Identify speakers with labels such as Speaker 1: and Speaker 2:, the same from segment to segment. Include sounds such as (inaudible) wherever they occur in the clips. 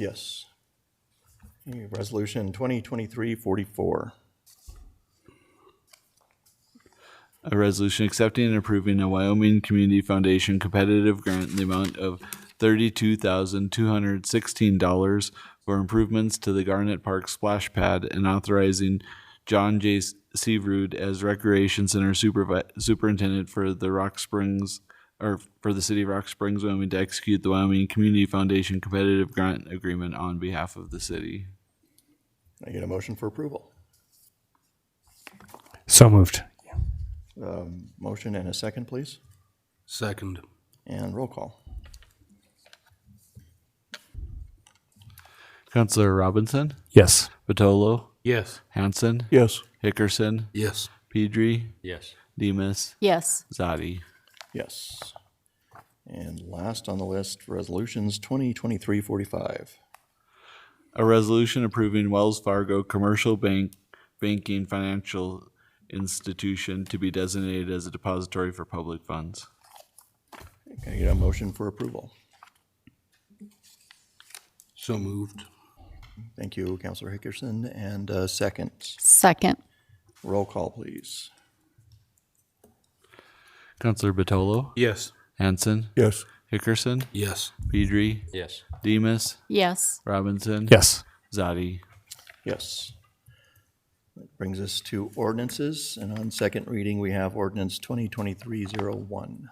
Speaker 1: Yes. Okay, Resolution 2023-44.
Speaker 2: A resolution accepting and approving a Wyoming Community Foundation competitive grant in the amount of thirty-two thousand two hundred sixteen dollars for improvements to the Garnet Park splash pad and authorizing John J. Searood as Recreation Center Supervi- Superintendent for the Rock Springs, or for the City of Rock Springs, Wyoming, to execute the Wyoming Community Foundation competitive grant agreement on behalf of the city.
Speaker 1: Can I get a motion for approval?
Speaker 3: So moved.
Speaker 1: Um, Motion and a second, please,
Speaker 4: Second.
Speaker 1: and roll call.
Speaker 2: Counselor Robinson,
Speaker 3: Yes.
Speaker 2: Vitolo,
Speaker 4: Yes.
Speaker 2: Hanson,
Speaker 1: Yes.
Speaker 2: Hickerson,
Speaker 4: Yes.
Speaker 2: Pedri,
Speaker 4: Yes.
Speaker 2: Demus,
Speaker 5: Yes.
Speaker 2: Zadi.
Speaker 1: Yes. And last on the list, Resolutions 2023-45.
Speaker 2: A resolution approving Wells Fargo Commercial Bank Banking Financial Institution to be designated as a depository for public funds.
Speaker 1: Can I get a motion for approval?
Speaker 4: So moved.
Speaker 1: Thank you, Counselor Hickerson, and a second.
Speaker 5: Second.
Speaker 1: Roll call, please.
Speaker 2: Counselor Batolo,
Speaker 4: Yes.
Speaker 2: Hanson,
Speaker 3: Yes.
Speaker 2: Hickerson,
Speaker 4: Yes.
Speaker 2: Pedri,
Speaker 4: Yes.
Speaker 2: Demus,
Speaker 5: Yes.
Speaker 2: Robinson,
Speaker 3: Yes.
Speaker 2: Zadi.
Speaker 1: Yes. That brings us to ordinances, and on second reading, we have ordinance 2023-01.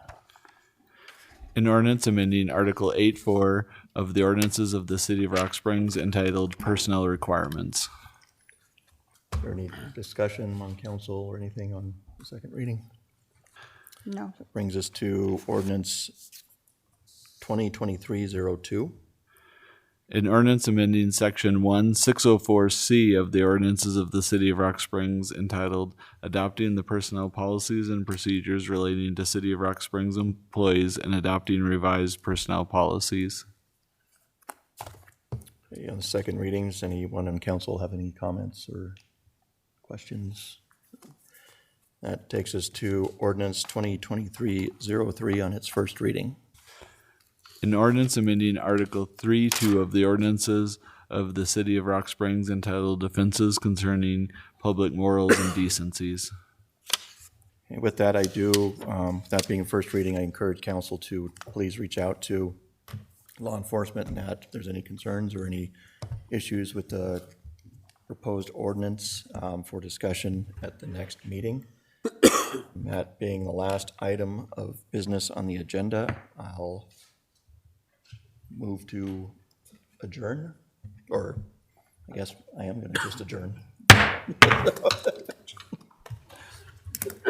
Speaker 2: An ordinance amending Article 8-4 of the ordinances of the City of Rock Springs entitled Personnel Requirements.
Speaker 1: Is there any discussion among council or anything on the second reading?
Speaker 5: No.
Speaker 1: Brings us to ordinance 2023-02.
Speaker 2: An ordinance amending section one six oh four C of the ordinances of the city of Rock Springs entitled Adopting the Personnel Policies and Procedures Relating to City of Rock Springs Employees and Adopting Revised Personnel Policies.
Speaker 1: Okay, On the second readings, anyone in council have any comments or questions? That takes us to ordinance 2023-03 on its first reading.
Speaker 2: An ordinance amending Article 3 2 of the ordinances of the city of Rock Springs entitled Offenses Concerning Public Morals and Decencies.
Speaker 1: And With that, I do, um, that being first reading, I encourage council to please reach out to law enforcement and that if there's any concerns or any issues with the proposed ordinance um, for discussion at the next meeting. (coughs) And That being the last item of business on the agenda, I'll move to adjourn, or I guess I am going to just adjourn.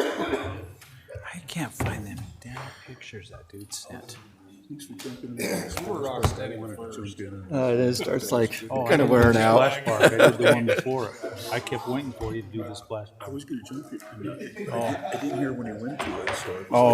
Speaker 6: I can't find them damn pictures that dude sent.
Speaker 1: Uh, It is- starts like, kind of wearing out.
Speaker 6: Splash Park, I did the one before it. I kept waiting for you to do the splash. Park. Oh,
Speaker 7: I was gonna jump it. I didn't hear when he went to it, so. I was-